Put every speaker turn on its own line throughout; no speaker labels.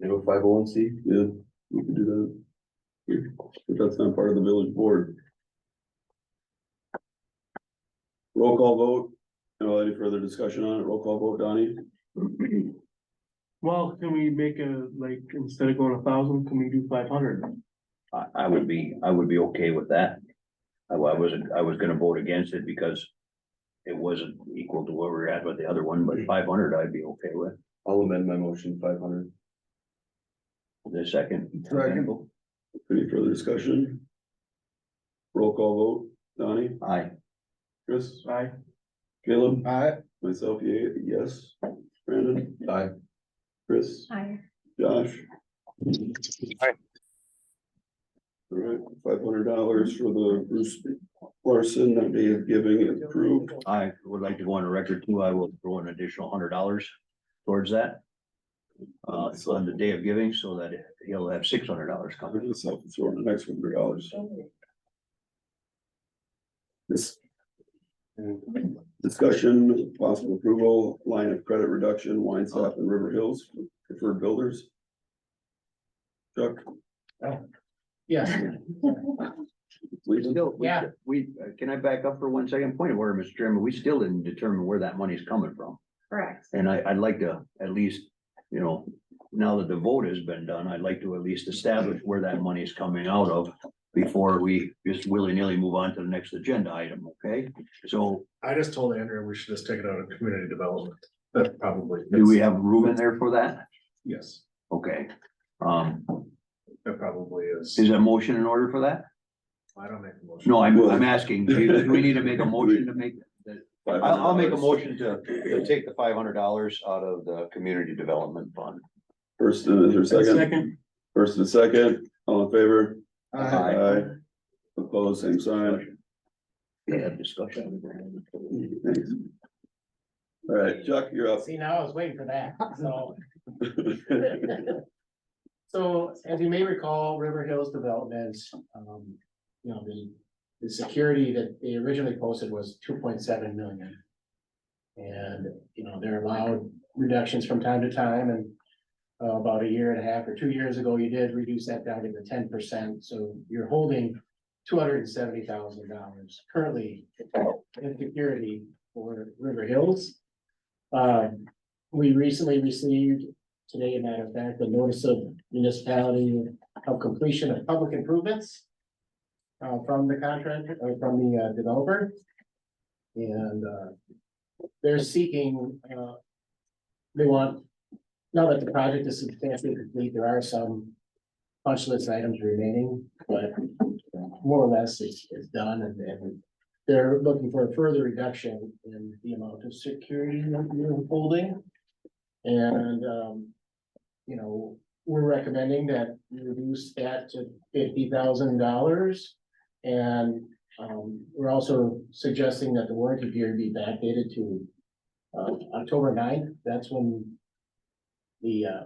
You know, five oh one C,
Yeah, we could do that. But that's not part of the village board. Roll call vote. No, any further discussion on it? Roll call vote, Donnie?
Well, can we make a, like, instead of going a thousand, can we do five hundred?
I, I would be, I would be okay with that. I, wa- I wasn't, I was gonna vote against it because it wasn't equal to where we were at with the other one, but five hundred I'd be okay with.
I'll amend my motion five hundred.
The second.
Second.
Any further discussion? Roll call vote, Donnie,
Aye.
Chris,
Aye.
Caleb,
Aye.
myself, yeah, yes, Brandon,
Aye.
Chris,
Hi.
Josh. All right, five hundred dollars for the Bruce Larson that they have giving approved.
I would like to go on a record too. I will throw an additional hundred dollars towards that. Uh, on the day of giving, so that he'll have six hundred dollars
I'll
coming.
do this, I'll throw in the next hundred dollars. This. Discussion, possible approval, line of credit reduction, wine stop in River Hills, preferred builders. Chuck,
Yes,
We still, we,
Yeah.
we, uh, can I back up for one second? Point of order, Mr. Chairman, we still didn't determine where that money's coming from.
Correct.
And I, I'd like to at least, you know, now that the vote has been done, I'd like to at least establish where that money is coming out of before we just willy-nilly move on to the next agenda item, okay? So
I just told Andrea we should just take it out of community development. That probably.
do we have room in there for that?
Yes,
Okay. Um,
that probably is.
is a motion in order for that?
I don't make a motion.
No, I'm, I'm asking, do do we need to make a motion to make? I'll, I'll make a motion to, to take the five hundred dollars out of the community development fund.
first and is there a second,
Second,
first and second, all in favor? Uh,
Aye.
Opposed, same sign,
They have discussion.
thanks. All right, Chuck, you're up.
See, now I was waiting for that, so. So as you may recall, River Hills Development, um, you know, the, the security that they originally posted was two point seven million. And, you know, they're allowed reductions from time to time and uh, about a year and a half or two years ago, you did reduce that down to the ten percent, so you're holding two hundred and seventy thousand dollars currently in security for River Hills. Um, we recently received today, matter of fact, the notice of municipality of completion of public improvements. uh, from the contractor, or from the uh, developer. And, uh, they're seeking, uh, they want, now that the project is substantially complete, there are some punch list items remaining, but more or less it's, it's done and, and they're looking for a further reduction in the amount of security that you're holding. And, um, you know, we're recommending that we reduce that to fifty thousand dollars. And, um, we're also suggesting that the warranty period be backdated to, uh, October 9th. that's when the, uh,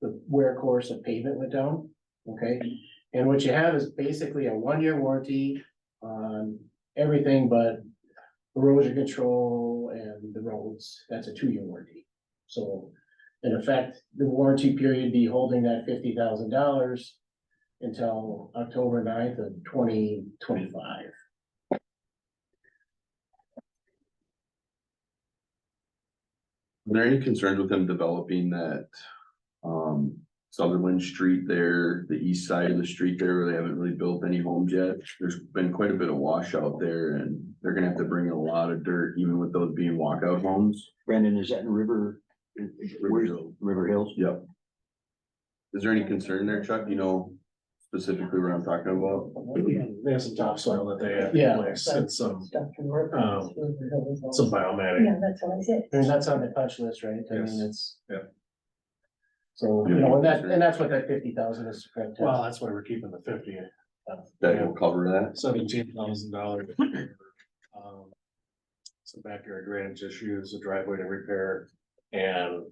the wear course of pavement went down, okay? And what you have is basically a one-year warranty on everything but erosion control and the roads, that's a two-year warranty. So in effect, the warranty period be holding that fifty thousand dollars until October 9th of twenty twenty-five.
Are there any concerns with them developing that, um, Sutherland Street there, the east side of the street there, where they haven't really built any homes yet? There's been quite a bit of washout there and they're gonna have to bring in a lot of dirt, even with those being walkout homes.
Brandon, is that in River? Where's River Hills?
Yep. Is there any concern there, Chuck? You know specifically what I'm talking about?
They have some topsoil that they have
Yeah.
in place and some, um, some biomatic.
Yeah, that's what I said.
And that's on the punch list, right? I
Yes.
mean, it's.
Yeah.
So, you know, and that, and that's what that fifty thousand is. correct to.
Well, that's why we're keeping the fifty.
That will cover that?
Seventeen thousand dollars. Some backyard drainage issues, a driveway to repair, and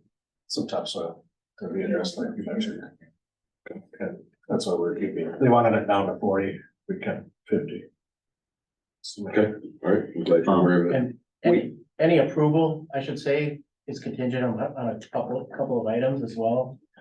some topsoil to be addressed like you mentioned. Okay, That's what we're keeping. it. They wanted it down to forty, we kept fifty.
Okay, all right, I'm glad you're aware of it.
And any, any approval, I should say, is contingent on, on a couple, couple of items as well.